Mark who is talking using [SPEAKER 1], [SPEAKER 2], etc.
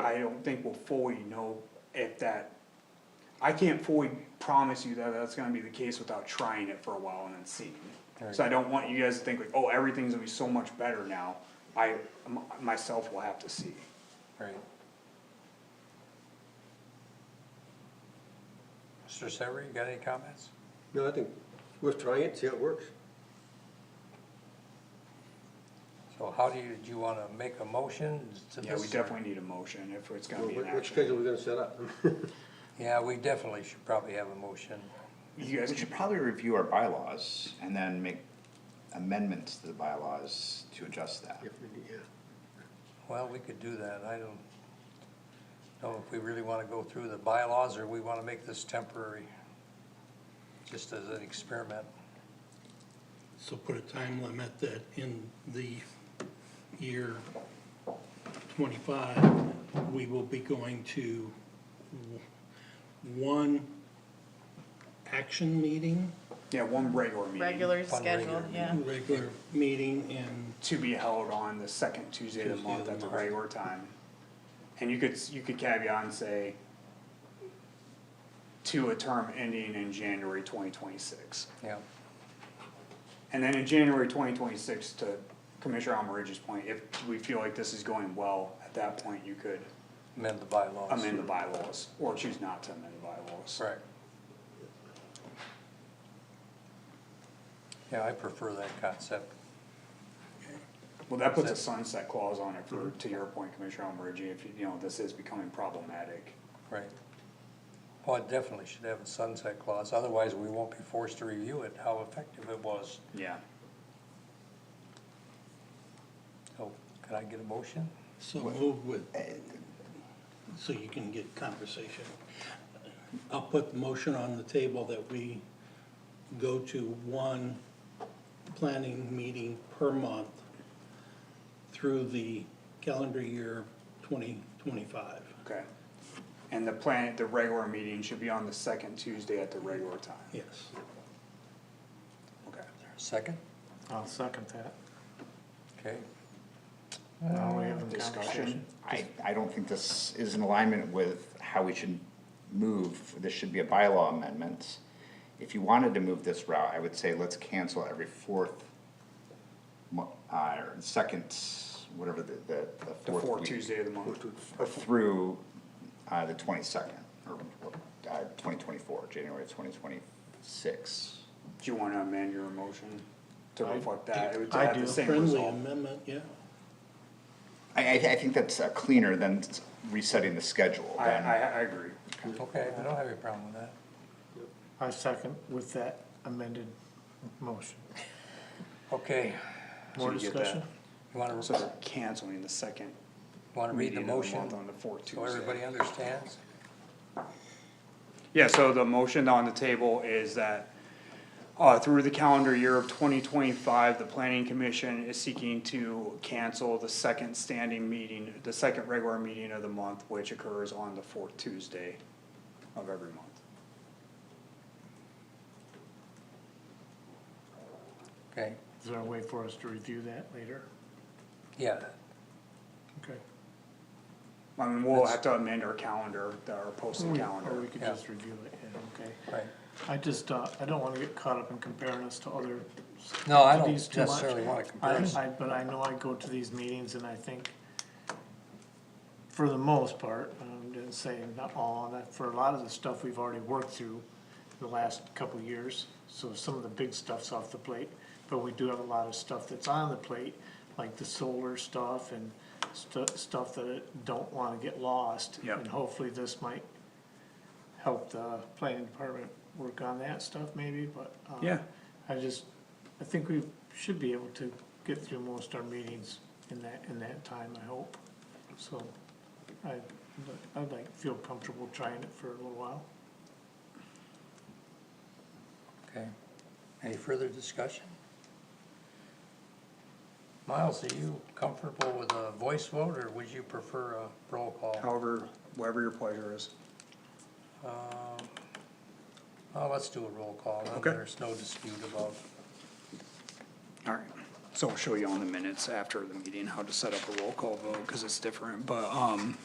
[SPEAKER 1] I don't think we'll fully know if that, I can't fully promise you that that's gonna be the case without trying it for a while and then seeing. So I don't want you guys to think like, oh, everything's gonna be so much better now, I, m- myself will have to see.
[SPEAKER 2] Right. Mr. Sever, you got any comments?
[SPEAKER 3] No, I think worth trying it, see how it works.
[SPEAKER 2] So how do you, do you wanna make a motion to this?
[SPEAKER 1] Yeah, we definitely need a motion if it's gonna
[SPEAKER 3] What
[SPEAKER 1] be an
[SPEAKER 3] what
[SPEAKER 1] action.
[SPEAKER 3] schedule we gonna set up?
[SPEAKER 2] Yeah, we definitely should probably have a motion.
[SPEAKER 1] You guys,
[SPEAKER 4] We should probably review our bylaws and then make amendments to the bylaws to adjust that.
[SPEAKER 3] If we need- yeah.
[SPEAKER 2] Well, we could do that. I don't know if we really wanna go through the bylaws or we wanna make this temporary. Just as an experiment.
[SPEAKER 5] So put a time limit that in the year twenty-five, we will be going to w- one action meeting,
[SPEAKER 1] yeah, one regular meeting.
[SPEAKER 6] regular
[SPEAKER 2] Fun
[SPEAKER 6] schedule,
[SPEAKER 2] regular
[SPEAKER 6] yeah.
[SPEAKER 5] regular meeting, and
[SPEAKER 1] to be held on the second Tuesday of the
[SPEAKER 5] Tuesday of
[SPEAKER 1] month
[SPEAKER 5] the
[SPEAKER 1] at the
[SPEAKER 5] month.
[SPEAKER 1] regular time. And you could, you could caveat and say to a term ending in January twenty twenty-six.
[SPEAKER 2] Yeah,
[SPEAKER 1] And then in January twenty twenty-six, to Commissioner Almaridge's point, if we feel like this is going well, at that point, you could
[SPEAKER 2] amend the bylaws.
[SPEAKER 1] amend the bylaws or choose not to amend the bylaws.
[SPEAKER 2] Right. Yeah, I prefer that concept.
[SPEAKER 1] Well, that puts a sunset clause on it for,
[SPEAKER 5] Mm-hmm.
[SPEAKER 1] to your point, Commissioner Almaridge, if, you know, this is becoming problematic.
[SPEAKER 2] Right. Well, it definitely should have a sunset clause, otherwise we won't be forced to review it, how effective it was.
[SPEAKER 1] Yeah.
[SPEAKER 2] So, can Oh, I get a motion?
[SPEAKER 5] so
[SPEAKER 1] uh,
[SPEAKER 5] move with, so you can get conversation. I'll put the motion on the table that we go to one planning meeting per month through the calendar year twenty twenty-five.
[SPEAKER 1] Okay. And the plan, the regular meeting should be on the second Tuesday at the regular time?
[SPEAKER 5] Yes.
[SPEAKER 1] Okay.
[SPEAKER 2] Second?
[SPEAKER 7] I'll second that.
[SPEAKER 2] Okay,
[SPEAKER 7] Now we have a
[SPEAKER 1] Discussion?
[SPEAKER 7] conversation.
[SPEAKER 4] I, I don't think this is in alignment with how we should move, this should be a bylaw amendment. If you wanted to move this route, I would say let's cancel every fourth mo- uh, or second, whatever the, the,
[SPEAKER 1] The
[SPEAKER 4] the fourth
[SPEAKER 1] fourth
[SPEAKER 4] week.
[SPEAKER 1] Tuesday of the month.
[SPEAKER 4] Through, uh, the twenty-second, or, uh, twenty twenty-four, January twenty twenty-six.
[SPEAKER 1] Do you wanna amend your motion to
[SPEAKER 7] I
[SPEAKER 1] reflect that? It would
[SPEAKER 7] I
[SPEAKER 1] have
[SPEAKER 7] do.
[SPEAKER 1] the same
[SPEAKER 5] Friendly
[SPEAKER 1] result.
[SPEAKER 5] amendment, yeah.
[SPEAKER 4] I, I, I think that's uh, cleaner than resetting the schedule.
[SPEAKER 1] I,
[SPEAKER 4] than-
[SPEAKER 1] I, I agree.
[SPEAKER 2] okay, I don't have any problem with that.
[SPEAKER 7] I second with that amended motion.
[SPEAKER 2] Okay,
[SPEAKER 7] More
[SPEAKER 1] you get
[SPEAKER 7] discussion?
[SPEAKER 2] you wanna,
[SPEAKER 1] So they're canceling the second
[SPEAKER 2] wanna read
[SPEAKER 1] meeting
[SPEAKER 2] the
[SPEAKER 1] of the month
[SPEAKER 2] motion,
[SPEAKER 1] on the fourth
[SPEAKER 2] so everybody
[SPEAKER 1] Tuesday.
[SPEAKER 2] understands?
[SPEAKER 1] Yeah, so the motion on the table is that uh, through the calendar year of twenty twenty-five, the planning commission is seeking to cancel the second standing meeting, the second regular meeting of the month, which occurs on the fourth Tuesday of every month.
[SPEAKER 2] Okay,
[SPEAKER 7] Is there a way for us to review that later?
[SPEAKER 2] yeah,
[SPEAKER 7] Okay.
[SPEAKER 1] I mean, we'll have to amend our calendar, our posted
[SPEAKER 7] Or
[SPEAKER 1] calendar.
[SPEAKER 7] we could
[SPEAKER 2] Yeah.
[SPEAKER 7] just review it, yeah, okay.
[SPEAKER 2] right.
[SPEAKER 7] I just, uh, I don't wanna get caught up in comparing us to other
[SPEAKER 2] No, I don't
[SPEAKER 7] entities too much.
[SPEAKER 2] necessarily wanna
[SPEAKER 7] I,
[SPEAKER 2] compare us.
[SPEAKER 7] I, but I know I go to these meetings and I think, for the most part, I'm gonna say not all, and that for a lot of the stuff we've already worked through the last couple of years, so some of the big stuff's off the plate, but we do have a lot of stuff that's on the plate, like the solar stuff and stu- stuff that don't wanna get lost.
[SPEAKER 1] Yep.
[SPEAKER 7] And hopefully this might help the planning department work on that stuff maybe, but, um,
[SPEAKER 1] Yeah.
[SPEAKER 7] I just, I think we should be able to get through most our meetings in that, in that time, I hope. So, I, I'd like, feel comfortable trying it for a little while.
[SPEAKER 2] Okay, any further discussion? Miles, are you comfortable with a voice vote, or would you prefer a roll call?
[SPEAKER 1] However, whatever your pleasure is.
[SPEAKER 2] Um, Well, let's do a roll call, then
[SPEAKER 1] Okay.
[SPEAKER 2] there's no dispute about,
[SPEAKER 1] All right, so I'll show you on the minutes after the meeting how to set up a roll call vote, cause it's different, but, um,